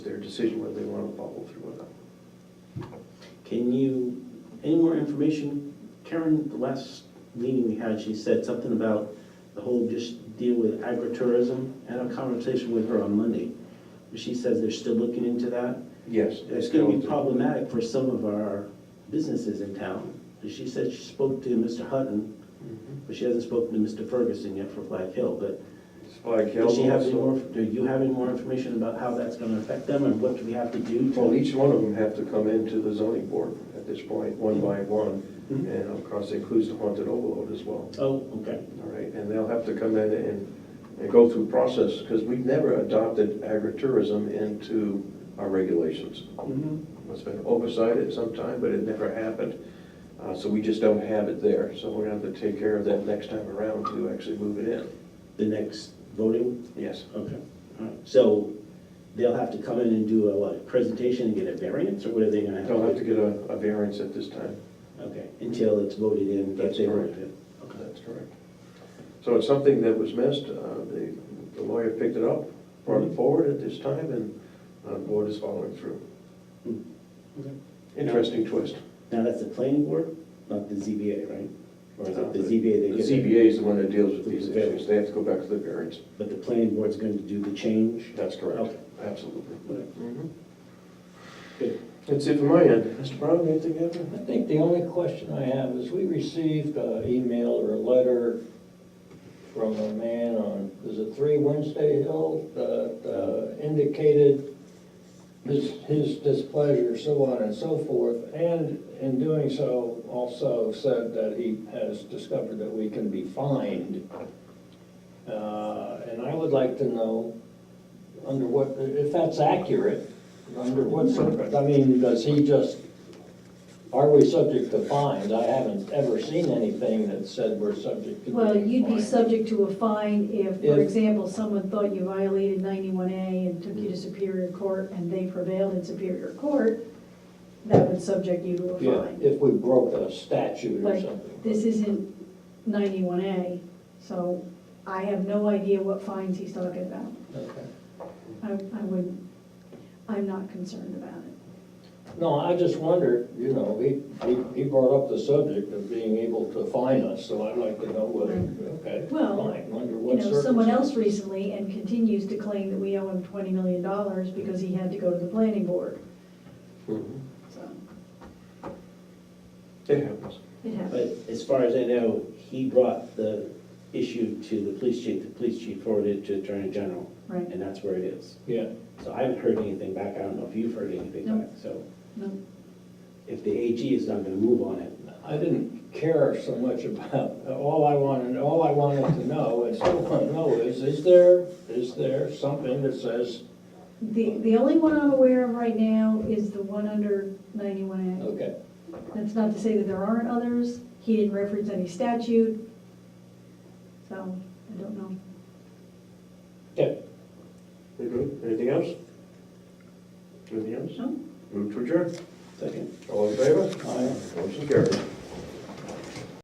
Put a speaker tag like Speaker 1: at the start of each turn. Speaker 1: decision whether they want to follow through or not.
Speaker 2: Can you, any more information? Karen, the last meeting we had, she said something about the whole just deal with agritourism. I had a conversation with her on Monday. She says they're still looking into that.
Speaker 1: Yes.
Speaker 2: It's gonna be problematic for some of our businesses in town. She said she spoke to Mr. Hutton,
Speaker 1: Mhm.
Speaker 2: but she hasn't spoken to Mr. Ferguson yet for Black Hill, but
Speaker 1: It's like
Speaker 2: does she have any
Speaker 1: also-
Speaker 2: more, do you have any more information about how that's gonna affect them and what do we have to do
Speaker 1: Well,
Speaker 2: to?
Speaker 1: each one of them have to come into the zoning board at this point, one by one,
Speaker 2: Mhm.
Speaker 1: and of course it includes the haunted overload as well,
Speaker 2: Oh, okay,
Speaker 1: all right? And they'll have to come in and, and go through process, because we've never adopted agritourism into our regulations.
Speaker 2: Mhm.
Speaker 1: It's been oversight at some time, but it never happened, uh, so we just don't have it there. So we're gonna have to take care of that next time around to actually move it in.
Speaker 2: the next voting?
Speaker 1: Yes,
Speaker 2: Okay, all right, so they'll have to come in and do a, what, a presentation and get a variance, or what are they gonna have? to
Speaker 1: don't have
Speaker 2: do?
Speaker 1: to get a, a variance at this time.
Speaker 2: Okay, until it's voted in, that
Speaker 1: That's
Speaker 2: they
Speaker 1: correct.
Speaker 2: want to. Okay.
Speaker 1: That's correct. So it's something that was missed, uh, the the lawyer picked it up, brought it forward at this time, and uh, the board is following through.
Speaker 2: Hmm. Okay.
Speaker 1: Interesting twist.
Speaker 2: Now, that's the planning board, not the ZBA, right? Or is it the
Speaker 1: Uh,
Speaker 2: ZBA
Speaker 1: The
Speaker 2: that gets it?
Speaker 1: ZBA is the one that deals with these
Speaker 2: With the variance.
Speaker 1: issues, they have to go back to the variance.
Speaker 2: But the planning board's going to do the change?
Speaker 1: That's correct,
Speaker 2: Okay.
Speaker 1: absolutely.
Speaker 2: Okay,
Speaker 1: Mhm.
Speaker 2: Good.
Speaker 1: That's it from my end. Mr. Brown, anything ever?
Speaker 3: I think the only question I have is, we received an email or a letter from a man on, is it Three Wednesday Hill, that uh, indicated his, his displeasure, so on and so forth, and in doing so, also said that he has discovered that we can be fined. Uh, And I would like to know, under what, if that's accurate, under what, circum- I mean, does he just are we subject to fines? I haven't ever seen anything that said we're subject to.
Speaker 4: Well,
Speaker 3: being
Speaker 4: you'd be
Speaker 3: fined.
Speaker 4: subject to a fine if,
Speaker 3: If-
Speaker 4: for example, someone thought you violated ninety-one A and took you
Speaker 3: Mm.
Speaker 4: to Superior Court and they prevailed in Superior Court, that would subject you to a
Speaker 3: Yeah,
Speaker 4: fine.
Speaker 3: if we broke a statute or
Speaker 4: But
Speaker 3: something.
Speaker 4: This isn't ninety-one A, so I have no idea what fines he's talking about.
Speaker 3: Okay.
Speaker 4: I, I wouldn't, I'm not concerned about it.
Speaker 3: No, I just wondered, you know, he, he, he brought up the subject of being able to fine us, so I'd like to know whether, okay,
Speaker 4: Well,
Speaker 3: fine, under
Speaker 4: You
Speaker 3: what
Speaker 4: know, someone else
Speaker 3: circumstances.
Speaker 4: recently and continues to claim that we owe him twenty million dollars because he had to go to the planning board,
Speaker 2: Mm-hmm.
Speaker 1: Mhm.
Speaker 4: so
Speaker 1: It happens.
Speaker 4: it happens.
Speaker 2: But as far as I know, he brought the issue to the police chief, the police chief forwarded it to Attorney General,
Speaker 4: Right.
Speaker 2: and that's where it is.
Speaker 3: Yeah,
Speaker 2: So I haven't heard anything back, I don't know if you've heard anything
Speaker 4: No.
Speaker 2: back, so
Speaker 4: No.
Speaker 2: if the AG is not gonna move on it,
Speaker 3: I didn't care so much about, all I wanted, all I wanted to know, and still want to know is, is there, is there something that says,
Speaker 4: The, the only one I'm aware of right now is the one under ninety-one
Speaker 3: okay,
Speaker 4: A. That's not to say that there aren't others, he didn't reference any statute, so I don't know.
Speaker 3: yeah,
Speaker 1: We good? Anything else? Anything else?
Speaker 4: No.
Speaker 1: Move to adjourn.
Speaker 2: second.
Speaker 1: All in favor?
Speaker 3: I-
Speaker 1: Motion carried.